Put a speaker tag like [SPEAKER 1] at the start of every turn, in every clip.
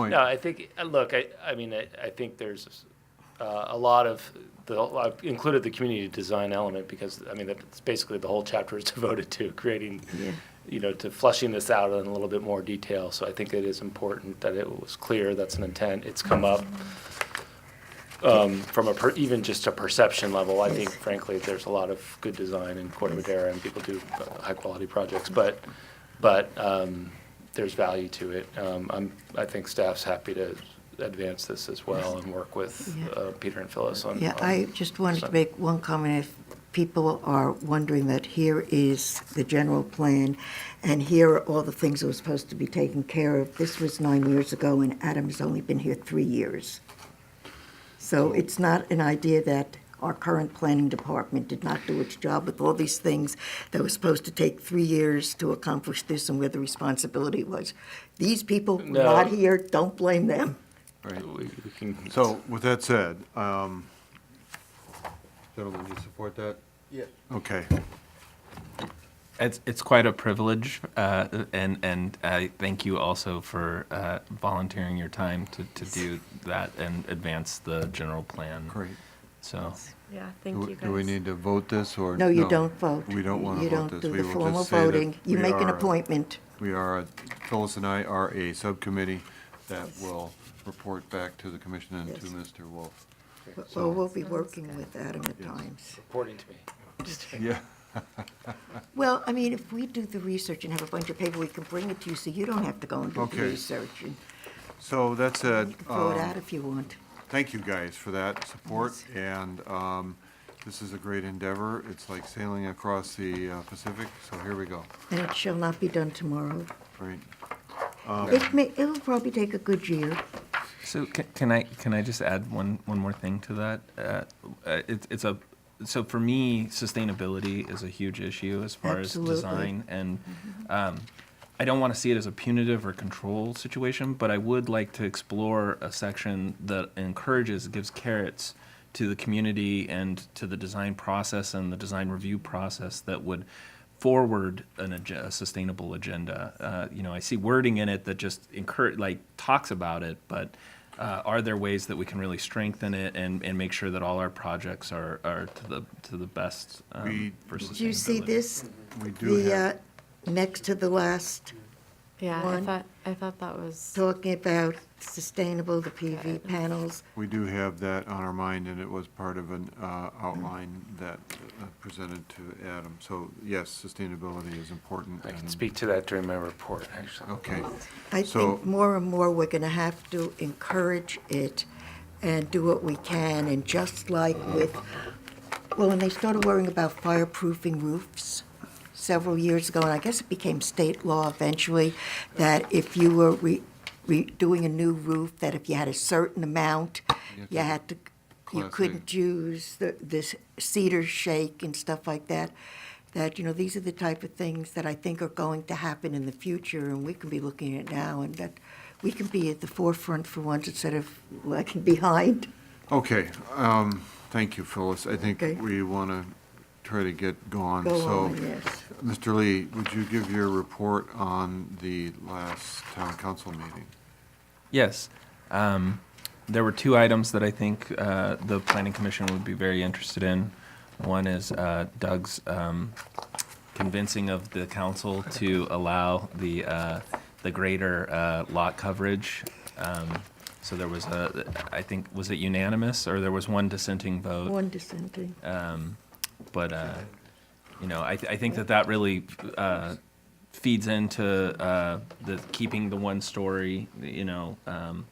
[SPEAKER 1] point?
[SPEAKER 2] No, I think, uh, look, I, I mean, I, I think there's uh, a lot of, the, I've included the community design element because, I mean, that's basically the whole chapter is devoted to creating,
[SPEAKER 1] Yeah.
[SPEAKER 2] you know, to fleshing this out in a little bit more detail. So I think it is important that it was clear that's an intent. It's come up um, from a, per- even just a perception level. I think frankly, there's a lot of good design in Corte Madera and people do high-quality projects, but, but um, there's value to it. Um, I'm, I think staff's happy to advance this as well and work with
[SPEAKER 3] Yeah.
[SPEAKER 2] uh, Peter and Phyllis on.
[SPEAKER 3] Yeah,
[SPEAKER 2] on-
[SPEAKER 3] I just wanted
[SPEAKER 2] so-
[SPEAKER 3] to make one comment. If people are wondering that here is the general plan, and here are all the things that were supposed to be taken care of. This was nine years ago, and Adam's only been here three years. So it's not an idea that our current planning department did not do its job with all these things that were supposed to take three years to accomplish this and where the responsibility was. These people were
[SPEAKER 2] No.
[SPEAKER 3] not here, don't blame them.
[SPEAKER 1] Right.
[SPEAKER 2] We we can,
[SPEAKER 1] So with that said, um, gentlemen, you support that?
[SPEAKER 4] Yeah.
[SPEAKER 1] Okay.
[SPEAKER 5] It's it's quite a privilege, uh, and and I thank you also for uh, volunteering your time to, to do that and advance the general plan.
[SPEAKER 1] Great.
[SPEAKER 5] So
[SPEAKER 6] Yeah,
[SPEAKER 1] Do
[SPEAKER 6] thank
[SPEAKER 1] we-
[SPEAKER 6] you guys.
[SPEAKER 1] Do we need to vote this or?
[SPEAKER 3] No, you don't vote.
[SPEAKER 1] We don't want to vote this.
[SPEAKER 3] You don't do
[SPEAKER 1] We
[SPEAKER 3] the
[SPEAKER 1] will
[SPEAKER 3] formal
[SPEAKER 1] just say that
[SPEAKER 3] voting. You
[SPEAKER 1] we
[SPEAKER 3] make an
[SPEAKER 1] are-
[SPEAKER 3] appointment.
[SPEAKER 1] We are, a- Phyllis and I are a subcommittee that will report back to the commission and to
[SPEAKER 3] Yes.
[SPEAKER 1] Mr. Wolf. So-
[SPEAKER 3] Well, we'll be working with Adam at times.
[SPEAKER 2] reporting to me.
[SPEAKER 1] Yeah.
[SPEAKER 3] Well, I mean, if we do the research and have a bunch of paper, we can bring it to you, so you don't have to go and do the
[SPEAKER 1] Okay.
[SPEAKER 3] research. and
[SPEAKER 1] So that
[SPEAKER 3] You
[SPEAKER 1] said,
[SPEAKER 3] can throw it
[SPEAKER 1] um,
[SPEAKER 3] out if you want.
[SPEAKER 1] thank you guys for that support, and um, this is a great endeavor. It's like sailing across the uh, Pacific, so here we go.
[SPEAKER 3] And it shall not be done tomorrow.
[SPEAKER 1] Great. Um,
[SPEAKER 3] It may, it'll probably take a good year.
[SPEAKER 5] so can, can I can I just add one one more thing to that? Uh, uh, it's it's a so for me sustainability is a huge issue as far
[SPEAKER 3] Absolutely.
[SPEAKER 5] as design and. Um, I don't want to see it as a punitive or control situation, but I would like to explore a section that encourages, gives carrots to the community and to the design process and the design review process that would forward an ag- a sustainable agenda. Uh, you know, I see wording in it that just encourage, like talks about it, but uh, are there ways that we can really strengthen it and, and make sure that all our projects are, are to the to the best um,
[SPEAKER 1] We-
[SPEAKER 5] for sustainability?
[SPEAKER 3] Do you see this?
[SPEAKER 1] We do have,
[SPEAKER 3] The, uh, next to the last,
[SPEAKER 6] Yeah, I
[SPEAKER 3] One.
[SPEAKER 6] thought, I thought that was,
[SPEAKER 3] talking about sustainable, the PV panels.
[SPEAKER 1] we do have that on our mind, and it was part of an uh, outline that uh, presented to Adam. So yes, sustainability is important.
[SPEAKER 2] I can
[SPEAKER 1] and-
[SPEAKER 2] speak to that during my report, actually.
[SPEAKER 1] Okay,
[SPEAKER 3] I
[SPEAKER 1] So-
[SPEAKER 3] think more and more we're going to have to encourage it and do what we can. And just like with, well, when they started worrying about fireproofing roofs several years ago, and I guess it became state law eventually, that if you were re, re, doing a new roof, that if you had a certain amount,
[SPEAKER 1] You had
[SPEAKER 3] you
[SPEAKER 1] to-
[SPEAKER 3] had to, you
[SPEAKER 1] Class A.
[SPEAKER 3] couldn't use the, this cedar shake and stuff like that. That, you know, these are the type of things that I think are going to happen in the future, and we can be looking at now, and that we can be at the forefront for once instead of lagging behind.
[SPEAKER 1] okay. um, Thank you, Phyllis. I think
[SPEAKER 3] Okay.
[SPEAKER 1] we want to try to get gone,
[SPEAKER 3] Go
[SPEAKER 1] Um, so.
[SPEAKER 3] on, yes.
[SPEAKER 1] Mr. Lee, would you give your report on the last town council meeting?
[SPEAKER 5] Yes. Um, there were two items that I think uh, the Planning Commission would be very interested in. One is uh, Doug's um, convincing of the council to allow the, uh, the greater uh, lot coverage. Um, So there was a, I think, was it unanimous, or there was one dissenting vote?
[SPEAKER 3] One dissenting.
[SPEAKER 5] Um, but uh, you know, I, I think that that really uh, feeds into uh, the keeping the one story, you know, um,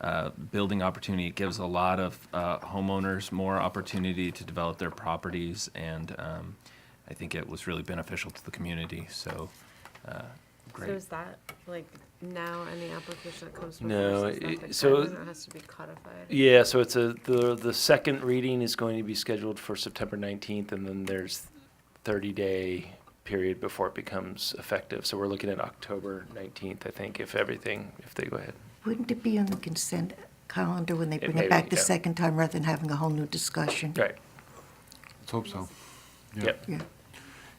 [SPEAKER 5] uh, building opportunity. It gives a lot of uh, homeowners more opportunity to develop their properties, and um, I think it was really beneficial to the community. So, uh,
[SPEAKER 6] so
[SPEAKER 5] great.
[SPEAKER 6] is that, like, now any application that comes before
[SPEAKER 2] No,
[SPEAKER 6] us is
[SPEAKER 2] it-
[SPEAKER 6] not the
[SPEAKER 2] so-
[SPEAKER 6] time, and it has to be codified?
[SPEAKER 2] Yeah, so it's a, the, the second reading is going to be scheduled for September 19th, and then there's 30-day period before it becomes effective. So we're looking at October 19th, I think, if everything, if they go ahead.
[SPEAKER 3] Wouldn't it be on the consent calendar when they
[SPEAKER 2] It
[SPEAKER 3] bring
[SPEAKER 2] may be,
[SPEAKER 3] it back the
[SPEAKER 2] yeah.
[SPEAKER 3] second time rather than having a whole new discussion?
[SPEAKER 2] Right,
[SPEAKER 1] Let's hope so. Yeah.
[SPEAKER 2] yep.
[SPEAKER 3] Yeah.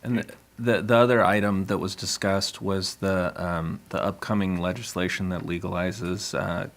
[SPEAKER 5] And the- the, the other item that was discussed was the, um, the upcoming legislation that legalizes, uh,